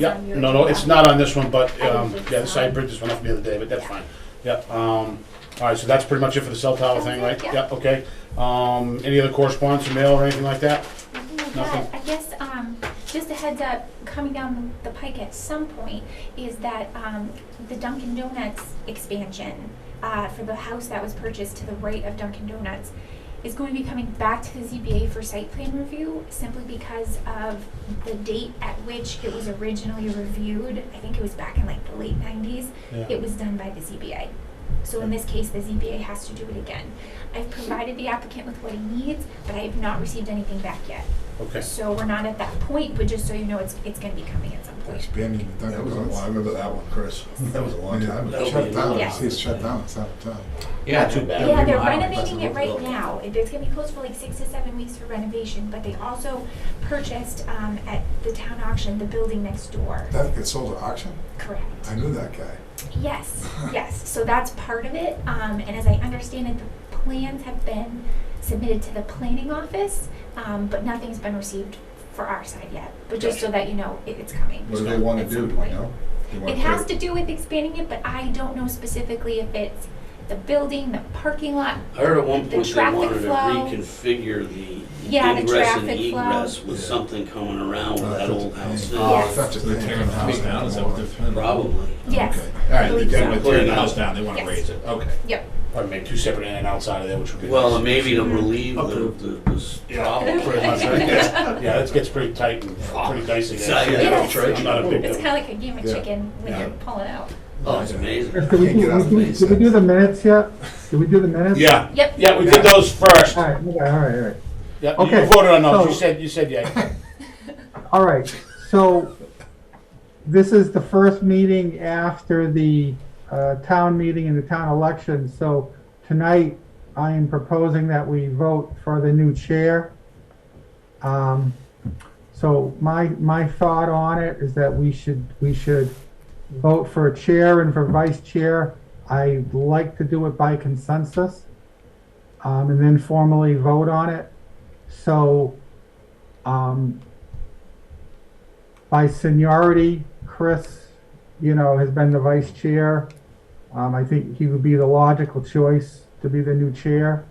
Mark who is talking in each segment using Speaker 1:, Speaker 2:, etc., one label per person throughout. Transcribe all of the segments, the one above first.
Speaker 1: Yeah,
Speaker 2: on your
Speaker 1: no, no, it's
Speaker 2: agenda.
Speaker 1: not on this one, but,
Speaker 2: I don't
Speaker 1: um,
Speaker 2: think
Speaker 1: yeah,
Speaker 2: so.
Speaker 1: so I printed this one up the other day, but that's
Speaker 2: Yeah.
Speaker 1: fine. Yep, um, all right, so that's pretty much it for the cell tower thing, right?
Speaker 2: Yeah.
Speaker 1: Yep, okay. Um, any other correspondence, or mail or anything like that?
Speaker 2: Nothing like
Speaker 1: Nothing.
Speaker 2: that. I guess, um, just a heads up, coming down the pike at some point is that, um, the Dunkin' Donuts expansion, uh, for the house that was purchased to the right of Dunkin' Donuts is going to be coming back to the ZBA for site plan review simply because of the date at which it was originally reviewed. I think it was back in like the late nineties.
Speaker 1: Yeah.
Speaker 2: It was done by the ZBA. So in this case, the ZBA has to do it again. I've provided the applicant with what he needs, but I have not received anything back yet.
Speaker 1: Okay,
Speaker 2: So we're not at that point, but just so you know, it's, it's gonna be coming at some point.
Speaker 3: Expanding the Oh,
Speaker 4: That was
Speaker 3: Dunkin'
Speaker 4: a long, I
Speaker 3: Donuts.
Speaker 4: remember that one, Chris. That was a long time
Speaker 3: Yeah,
Speaker 4: ago.
Speaker 3: It's shut down,
Speaker 2: Yeah.
Speaker 3: see, it's shut down, it's uh, out of town.
Speaker 5: Yeah,
Speaker 1: Not too bad.
Speaker 2: Yeah, they're
Speaker 5: Remodeling.
Speaker 2: renovating it right now. It- It's gonna be closed for like six to seven weeks for renovation, but they also purchased, um, at the town auction, the building next door.
Speaker 3: That gets sold at auction?
Speaker 2: Correct.
Speaker 3: I knew that guy.
Speaker 2: Yes, yes. So that's part of it. Um, and as I understand it, the plans have been submitted to the planning office, um, but nothing's been received for our side yet. But just so that you know, it, it's coming.
Speaker 4: What do they want to do, do you know? They wanna
Speaker 2: It has
Speaker 4: put-
Speaker 2: to do with expanding it, but I don't know specifically if it's the building, the parking lot.
Speaker 5: I heard at one
Speaker 2: The
Speaker 5: point they
Speaker 2: traffic
Speaker 5: wanted to
Speaker 2: flow.
Speaker 5: reconfigure the
Speaker 2: Yeah, the
Speaker 5: ingress and
Speaker 2: traffic flow.
Speaker 5: egress with
Speaker 4: Yeah.
Speaker 5: something coming around with
Speaker 3: Uh,
Speaker 5: that
Speaker 3: that's
Speaker 5: old
Speaker 3: a
Speaker 5: house
Speaker 3: pain.
Speaker 5: there.
Speaker 2: Yes.
Speaker 3: That's just
Speaker 6: They're
Speaker 3: the
Speaker 6: tearing the house down, is that what they're planning?
Speaker 5: Probably.
Speaker 2: Yes.
Speaker 3: Okay.
Speaker 6: All right, they're
Speaker 2: Believe
Speaker 6: done
Speaker 2: so.
Speaker 6: with tearing the house down, they wanna
Speaker 2: Yes.
Speaker 6: raise it, okay.
Speaker 2: Yep.
Speaker 1: probably make two separate in and outside of there, which would be.
Speaker 5: Well, and
Speaker 1: nice.
Speaker 5: maybe to relieve
Speaker 1: Approved.
Speaker 5: the, the, this
Speaker 1: Yeah,
Speaker 5: problem.
Speaker 1: Pretty much, right? Yeah, it gets pretty tight and pretty dicey
Speaker 5: Yeah,
Speaker 1: there.
Speaker 5: yeah,
Speaker 2: Yes.
Speaker 5: trade.
Speaker 1: I'm not a big
Speaker 2: It's
Speaker 1: deal.
Speaker 2: kinda like a game of
Speaker 3: Yeah.
Speaker 2: chicken when
Speaker 3: Yeah.
Speaker 2: you're pulling out.
Speaker 5: Oh, it's amazing.
Speaker 3: I
Speaker 7: Did we
Speaker 3: can't get out
Speaker 7: do,
Speaker 3: of
Speaker 7: did we-
Speaker 3: these
Speaker 7: did we do
Speaker 3: things.
Speaker 7: the minutes yet? Did we do the minutes?
Speaker 1: Yeah,
Speaker 2: Yep.
Speaker 1: yeah, we did those first.
Speaker 7: All right, okay, all right, all right.
Speaker 1: Yeah, you
Speaker 7: Okay,
Speaker 1: voted on those, you
Speaker 7: so-
Speaker 1: said, you said yeah.
Speaker 7: All right, so this is the first meeting after the uh, town meeting and the town election. So tonight, I am proposing that we vote for the new chair. Um, So my, my thought on it is that we should, we should vote for a chair and for vice chair. I like to do it by consensus um, and then formally vote on it. So um, by seniority, Chris, you know, has been the vice chair. Um, I think he would be the logical choice to be the new chair.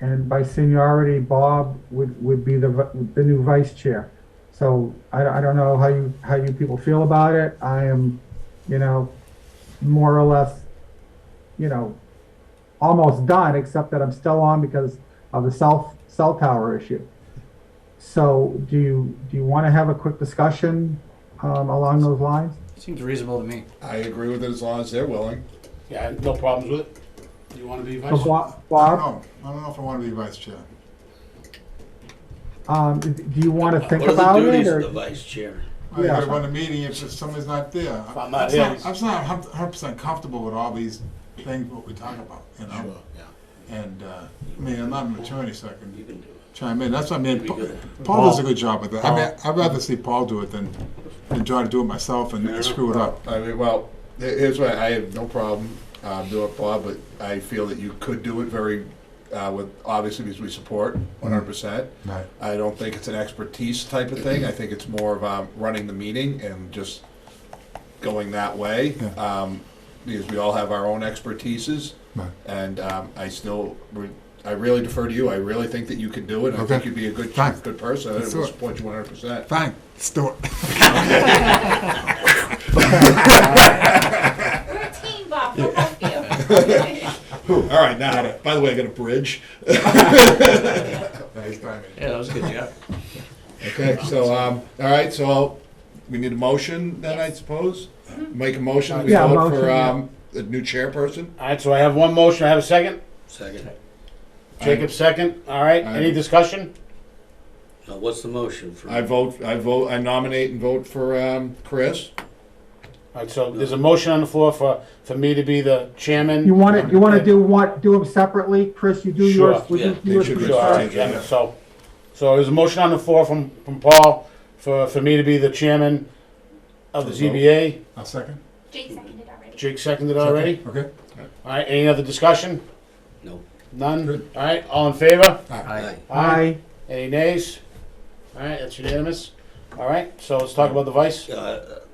Speaker 7: And by seniority, Bob would, would be the, vi- the new vice chair. So I, don't- I don't know how you, how you people feel about it. I am, you know, more or less, you know, almost done, except that I'm still on because of the cell, cell tower issue. So do you, do you want to have a quick discussion um, along those lines?
Speaker 8: Seems reasonable to me.
Speaker 4: I agree with it as long as they're willing.
Speaker 1: Yeah, no problems with it. You wanna be
Speaker 7: So
Speaker 1: vice?
Speaker 7: Bob,
Speaker 3: I don't
Speaker 7: Bob,
Speaker 3: know, I don't know if I want to be vice chair.
Speaker 7: um, d- do you want to think
Speaker 5: What
Speaker 7: about
Speaker 5: are the
Speaker 7: it?
Speaker 5: duties of the
Speaker 7: or-
Speaker 5: vice chair?
Speaker 3: I
Speaker 7: Yeah.
Speaker 3: gotta run a meeting if if somebody's not there.
Speaker 1: If I'm not
Speaker 3: I'm
Speaker 1: here.
Speaker 3: not- I'm just not hundred percent comfortable with all these things what we talk about, you know?
Speaker 1: yeah.
Speaker 3: And, uh, I mean, I'm not an attorney, so I
Speaker 5: You
Speaker 3: can
Speaker 5: can do it.
Speaker 3: chime in, that's what I mean.
Speaker 5: Be good.
Speaker 3: Paul does a good job with that. I mean, I'd rather see Paul do it than, than try to do it myself and screw it up.
Speaker 4: I mean, well, here- here's what, I have no problem uh, doing it, Bob, but I feel that you could do it very, uh, with, obviously, because we support 100%.
Speaker 3: Right.
Speaker 4: I don't think it's an expertise type of thing. I think it's more of um, running the meeting and just going that way.
Speaker 3: Yeah.
Speaker 4: Um, because we all have our own expertises,
Speaker 3: Right.
Speaker 4: and um, I still, re- I really defer to you. I really think that you could do it. I
Speaker 3: Okay.
Speaker 4: think you'd be a good,
Speaker 3: Fine.
Speaker 4: good person. I
Speaker 3: Let's do
Speaker 4: would
Speaker 3: it.
Speaker 4: support you 100%.
Speaker 3: Fine, let's do it.
Speaker 2: We're a team, Bob, we'll help you.
Speaker 4: All right, now, by the way, I got a bridge.
Speaker 3: Nice timing.
Speaker 5: Yeah, that was a good job.
Speaker 4: Okay, so, um, all right, so I'll- we need a motion then, I suppose? Make a motion, we
Speaker 7: Yeah,
Speaker 4: vote
Speaker 7: motion,
Speaker 4: for
Speaker 7: yeah.
Speaker 4: um, a new chairperson?
Speaker 1: All right, so I have one motion, I have a second.
Speaker 5: Second.
Speaker 1: Jacob, second. All right, any
Speaker 4: Aye.
Speaker 1: discussion?
Speaker 5: Now, what's the motion for?
Speaker 4: I vote, I vote, I nominate and vote for um, Chris.
Speaker 1: All right, so there's a motion on the floor for, for me to be the chairman.
Speaker 7: You want to, you want to do what, do them separately? Chris, you do
Speaker 1: Sure.
Speaker 7: yours, we
Speaker 5: Yeah,
Speaker 7: do
Speaker 4: they
Speaker 7: yours
Speaker 4: should be
Speaker 7: first.
Speaker 1: Sure, all right, yeah, so, so there's a motion on the floor from, from Paul for, for me to be the chairman of the ZBA.
Speaker 3: I'll second.
Speaker 2: Jake seconded already.
Speaker 1: Jake seconded already.
Speaker 3: Okay.
Speaker 1: All right, any other discussion?
Speaker 5: No.
Speaker 1: None? All right, all in favor?
Speaker 5: Aye.
Speaker 7: Aye.
Speaker 1: Any nays? All right, that's unanimous. All right, so let's talk about the vice.
Speaker 5: Uh,